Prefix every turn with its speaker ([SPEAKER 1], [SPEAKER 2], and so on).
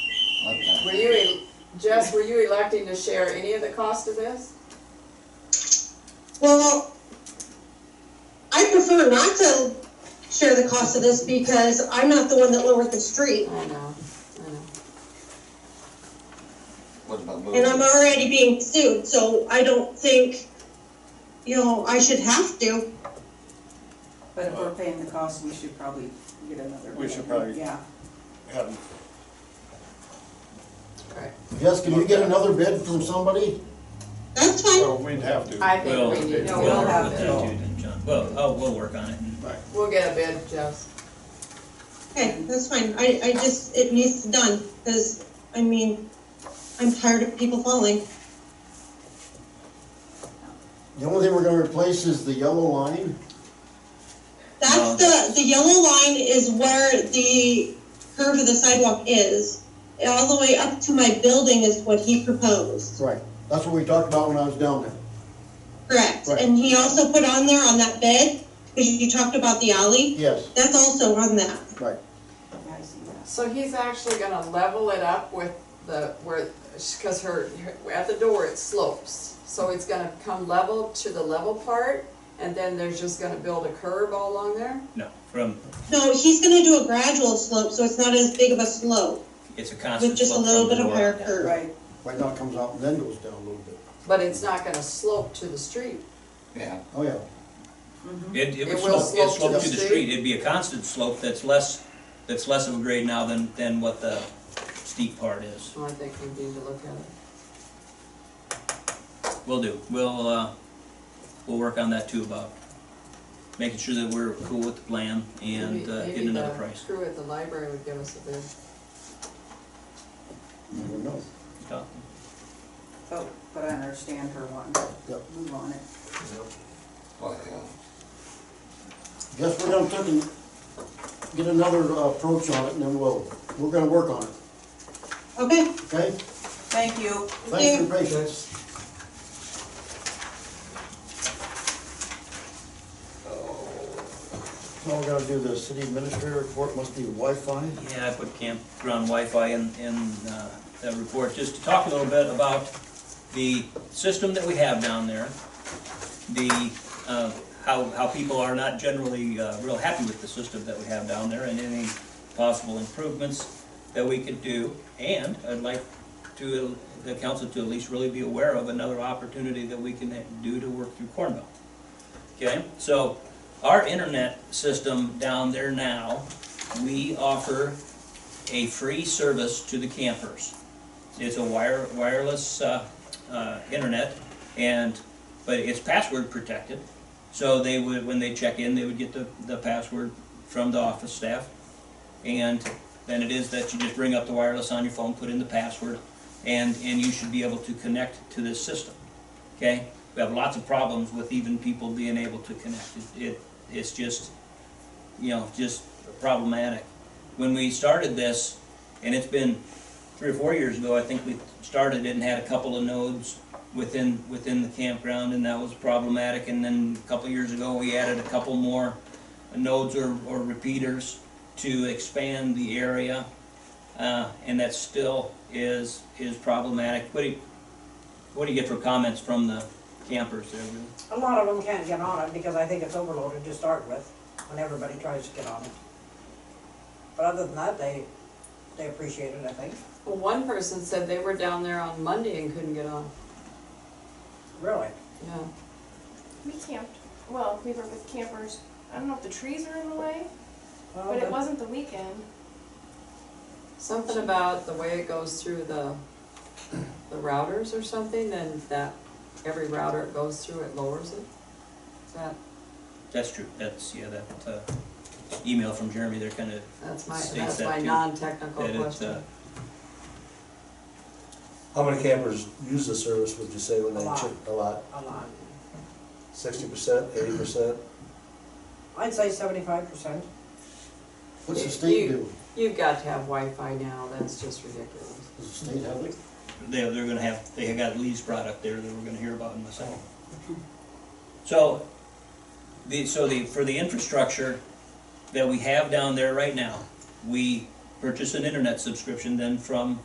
[SPEAKER 1] Jess, were you electing to share any of the cost of this?
[SPEAKER 2] Well, I prefer not to share the cost of this because I'm not the one that lowered the street.
[SPEAKER 1] I know, I know.
[SPEAKER 3] What about
[SPEAKER 2] And I'm
[SPEAKER 3] moving?
[SPEAKER 2] already being sued, so I don't think, you know, I should have to.
[SPEAKER 4] But if we're paying the cost, we should probably get another.
[SPEAKER 5] We should
[SPEAKER 4] bid.
[SPEAKER 5] probably-
[SPEAKER 4] Yeah,
[SPEAKER 5] Have them
[SPEAKER 1] Right.
[SPEAKER 6] Jess, can you get another bid from somebody?
[SPEAKER 2] That's fine.
[SPEAKER 5] So we'd have to.
[SPEAKER 1] I
[SPEAKER 7] Well,
[SPEAKER 1] think we need,
[SPEAKER 4] No,
[SPEAKER 1] to
[SPEAKER 7] we'll
[SPEAKER 4] we'll
[SPEAKER 7] work
[SPEAKER 4] have
[SPEAKER 7] with
[SPEAKER 4] it.
[SPEAKER 7] that dude and John. Well, oh, we'll work on it.
[SPEAKER 1] we'll get a bid, Jess.
[SPEAKER 2] Okay, that's fine. I, I just, it needs to done, because, I mean, I'm tired of people falling.
[SPEAKER 6] The only thing we're gonna replace is the yellow line.
[SPEAKER 2] That's the, the yellow line is where the curve of the sidewalk is. All the way up to my building is what he proposed.
[SPEAKER 6] Right. That's what we talked about when I was down there.
[SPEAKER 2] Correct,
[SPEAKER 6] Right.
[SPEAKER 2] and he also put on there on that bid, because you talked about the alley,
[SPEAKER 6] Yes,
[SPEAKER 2] that's also on that.
[SPEAKER 6] right.
[SPEAKER 4] yeah, I see that.
[SPEAKER 1] So he's actually gonna level it up with the, where, cause her, her- at the door it slopes. So it's gonna come level to the level part, and then there's just gonna build a curb all along there?
[SPEAKER 7] No, from,
[SPEAKER 2] No, he's gonna do a gradual slope, so it's not as big of a slope,
[SPEAKER 7] it's a constant
[SPEAKER 2] with just a
[SPEAKER 7] slope
[SPEAKER 2] little
[SPEAKER 7] from
[SPEAKER 2] bit
[SPEAKER 7] the
[SPEAKER 2] of
[SPEAKER 7] door.
[SPEAKER 2] higher curve.
[SPEAKER 4] Right,
[SPEAKER 6] Right now it comes out and then goes down a little bit.
[SPEAKER 1] But it's not gonna slope to the street.
[SPEAKER 3] Yeah,
[SPEAKER 6] Oh, yeah.
[SPEAKER 7] It, it would
[SPEAKER 1] It will
[SPEAKER 7] slope, it'd
[SPEAKER 1] slope to
[SPEAKER 7] slope
[SPEAKER 1] the
[SPEAKER 7] to the
[SPEAKER 1] street.
[SPEAKER 7] street, it'd be a constant slope that's less, that's less of a grade now than, than what the steep part is.
[SPEAKER 1] So I think we need to look at it.
[SPEAKER 7] We'll do, we'll, uh, we'll work on that too, Bob. Making sure that we're cool with the plan and
[SPEAKER 1] Maybe-
[SPEAKER 7] uh,
[SPEAKER 1] maybe
[SPEAKER 7] getting another
[SPEAKER 1] the
[SPEAKER 7] price.
[SPEAKER 1] Crew at the library would give us a bid.
[SPEAKER 6] Never know.
[SPEAKER 7] Talk.
[SPEAKER 4] but, oh, but I understand her wanting to
[SPEAKER 6] Yep.
[SPEAKER 4] move on it.
[SPEAKER 3] well, Oh, yeah.
[SPEAKER 6] Guess we're gonna take and get another uh, approach on it and then we'll, we're gonna work on it,
[SPEAKER 2] Okay,
[SPEAKER 6] okay?
[SPEAKER 4] Thank you.
[SPEAKER 6] Thanks for your patience. Now we're gonna do the city administrator report, must be Wi-Fi.
[SPEAKER 7] Yeah, I put campground Wi-Fi in, in uh, that report, just to talk a little bit about the system that we have down there, the, uh, how, how people are not generally uh, real happy with the system that we have down there, and any possible improvements that we could do. And I'd like to, the council to at least really be aware of another opportunity that we can do to work through Cornville. Okay, so our internet system down there now we offer a free service to the campers. It's a wire, wireless, uh, uh, internet, and, but it's password protected. So they would, when they check in, they would get the, the password from the office staff. And then it is that you just bring up the wireless on your phone, put in the password, and, and you should be able to connect to this system. Okay? We have lots of problems with even people being able to connect. It, it, it's just, you know, just problematic. When we started this, and it's been three or four years ago, I think we started it and had a couple of nodes within, within the campground, and that was problematic. And then a couple of years ago, we added a couple more nodes or, or repeaters to expand the area. Uh, and that still is, is problematic. What do you, what do you get for comments from the campers there? Lou?
[SPEAKER 8] A lot of them can't get on it because I think it's overloaded to start with, when everybody tries to get on it. But other than that, they, they appreciate it, I think,
[SPEAKER 1] Well, one person said they were down there on Monday and couldn't get on,
[SPEAKER 8] really.
[SPEAKER 1] yeah.
[SPEAKER 9] We camped, well, we were with campers, I don't know if the trees are in the way,
[SPEAKER 8] Well,
[SPEAKER 9] but it
[SPEAKER 8] that-
[SPEAKER 9] wasn't the weekend.
[SPEAKER 1] Something about the way it goes through the, the routers or something, then that, every router it goes through, it lowers it? Is that,
[SPEAKER 7] That's true, that's, yeah, that, uh, email from Jeremy, they're kind of
[SPEAKER 1] that's my, that's
[SPEAKER 7] States that
[SPEAKER 1] my
[SPEAKER 7] too,
[SPEAKER 1] non-technical
[SPEAKER 7] that it's, uh,
[SPEAKER 1] question.
[SPEAKER 10] How many campers use the service, would you say, when they
[SPEAKER 8] A lot.
[SPEAKER 10] check? A lot.
[SPEAKER 8] A lot.
[SPEAKER 10] Sixty percent, eighty percent?
[SPEAKER 8] I'd say seventy-five percent.
[SPEAKER 6] What's the state do?
[SPEAKER 1] You've got to have Wi-Fi now, that's just ridiculous.
[SPEAKER 6] Does the state have it?
[SPEAKER 7] they, they're gonna have, they have got Lee's product there that we're gonna hear about in a second. So, the, so the, for the infrastructure that we have down there right now, we purchase an internet subscription then from